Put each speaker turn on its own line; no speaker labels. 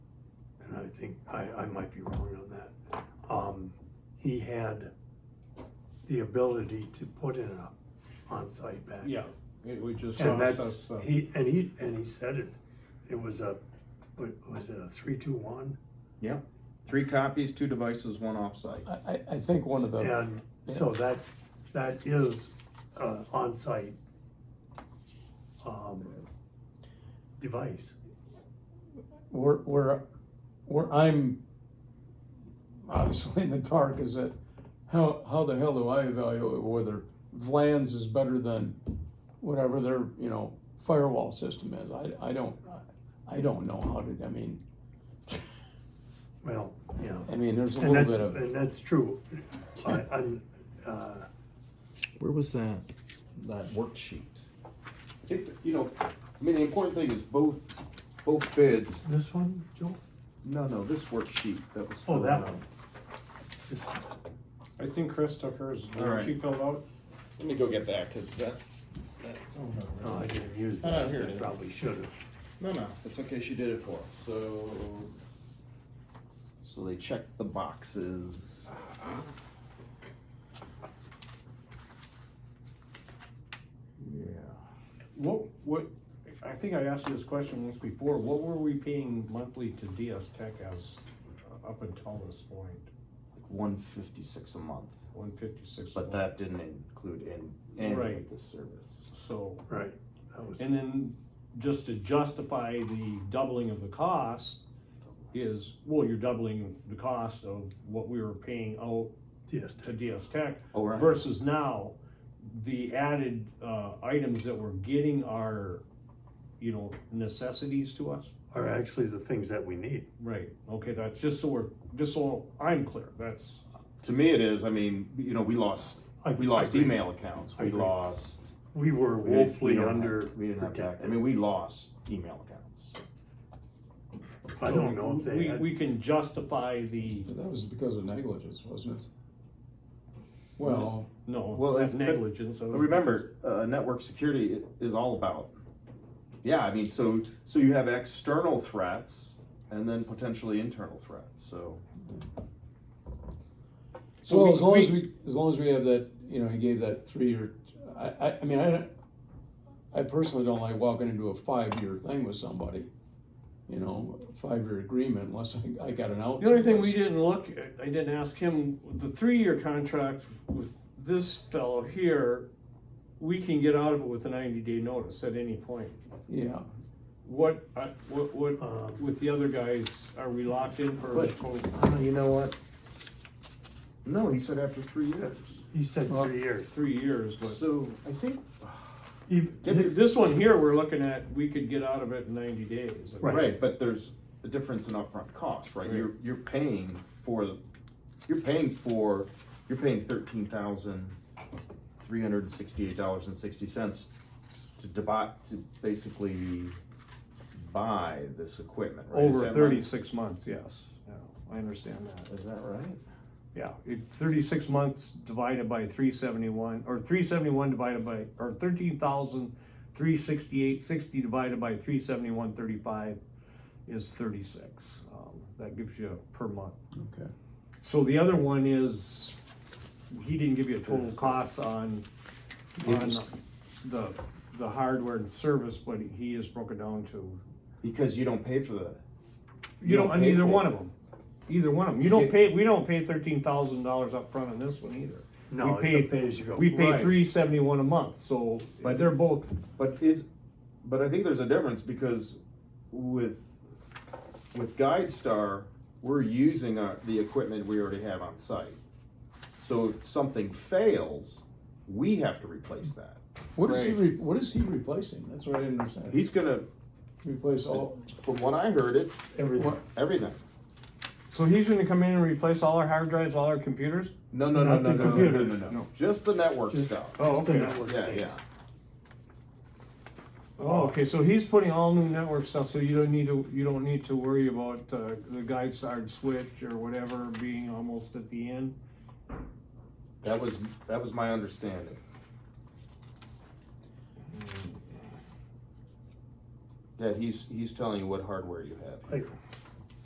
think, I, I might be wrong on that. Um, he had the ability to put in a on-site back.
Yeah, it would just
And
cost
that's,
us, uh,
he, and he, and he said it, it was a, what, was it a three, two, one?
Three copies, two devices, one offsite.
I, I- I think one of the,
And so that, that is, uh, onsite, um, device.
where, where, where I'm obviously in the dark is that how, how the hell do I evaluate whether Vlan's is better than whatever their, you know, firewall system is? I, I don't, I don't know how to, I mean,
Well, yeah.
I mean, there's a
And
little
that's,
bit of,
and that's true. I, I'm, uh,
Where was that, that worksheet?
I think, that, you know, I mean, the important thing is both, both bids,
this one, Joel?
no, no, this worksheet that was.
Oh,
filled
that
out.
one. This-
I think Chris took hers,
All
didn't
right.
she fill out?
Let me go get that, cause uh, that,
No, I didn't use
Oh,
that.
here it
I
is.
Probably should have.
no, no, it's okay, she did it for us, so. So they checked the boxes. Yeah.
What, what, I think I asked you this question once before, what were we paying monthly to DS Tech as, uh, up until this point?
Like one fifty-six a month,
One fifty-six.
but that didn't include in, any
Right.
of the service.
So,
Right. That was,
and then just to justify the doubling of the cost is, well, you're doubling the cost of what we were paying out
yes,
to DS Tech
Oh, right,
versus now, the added, uh, items that we're getting are, you know, necessities to us.
are actually the things that we need.
Right, okay, that's just so we're, just so I'm clear, that's,
to me it is, I mean, you know, we lost
I-
We lost
I agree.
email accounts,
I
we
agree.
lost.
We were
we didn't- we
woefully
don't have-
under
We didn't have that, I
protected.
mean, we lost email accounts.
I don't know if they
We,
had,
we can justify the,
that was because of negligence, wasn't it? Well,
no,
Well, it's-
that's negligence. so-
But remember, uh, network security i- is all about, yeah, I mean, so, so you have external threats and then potentially internal threats, so.
So
well, as long
we,
as we, as long as we have that, you know, he gave that three-year, I, I, I mean, I, don't- I personally don't like walking into a five-year thing with somebody. You know, five-year agreement unless I, I got an out.
the only thing
someplace.
we didn't look, at- I didn't ask him, the three-year contract with this fellow here, we can get out of it with a ninety-day notice at any point.
Yeah,
What, I- what, what,
Um,
with the other guys, are we locked in for?
But- Oh, you know what? No, he said after three years,
he said
Well-
three years.
Three years, but.
so I think,
Even-
Th- This one here, we're looking at, we could get out of it in ninety days.
Right.
right, but there's a difference in upfront cost, right?
Right.
You're, you're paying for, you're paying for, you're paying thirteen thousand three hundred and sixty-eight dollars and sixty cents to debot, to basically buy this equipment, right? Is
Over
that right?
thirty-six months, yes. Yeah, I understand that.
Is that right?
Yeah, it, thirty-six months divided by three seventy-one, or three seventy-one divided by, or thirteen thousand three sixty-eight sixty divided by three seventy-one thirty-five is thirty-six. Um, That gives you per month.
okay.
So the other one is, he didn't give you a total cost on, on the, the hardware and service, but he is broken down to
Because you don't pay for the,
You don't, on
pay
either
for it.
one of them, either one of them, you don't pay, we don't pay thirteen thousand dollars up front on this one either.
No,
we
it's a
paid-
pay as you go.
We pay
Right.
three seventy-one a month, so, but
But-
they're both,
But is, but I think there's a difference because with, with GuideStar, we're using our, the equipment we already have on site. So if something fails, we have to replace that.
What is he, re- what is he replacing? That's what I didn't understand.
He's gonna,
Replace all,
from what I heard it,
Everything.
everything.
so he's gonna come in and replace all our hard drives, all our computers?
No, no, no,
Not the
no, no, no, no, no,
computers,
no,
no.
just the network
Just-
stuff.
Oh,
Just the
okay.
network
Yeah,
thing.
yeah.
Oh, okay, so he's putting all new network stuff, so you don't need to, you don't need to worry about, uh, the guide star switch or whatever being almost at the end?
That was, that was my understanding. That he's, he's telling you what hardware you have.
Like,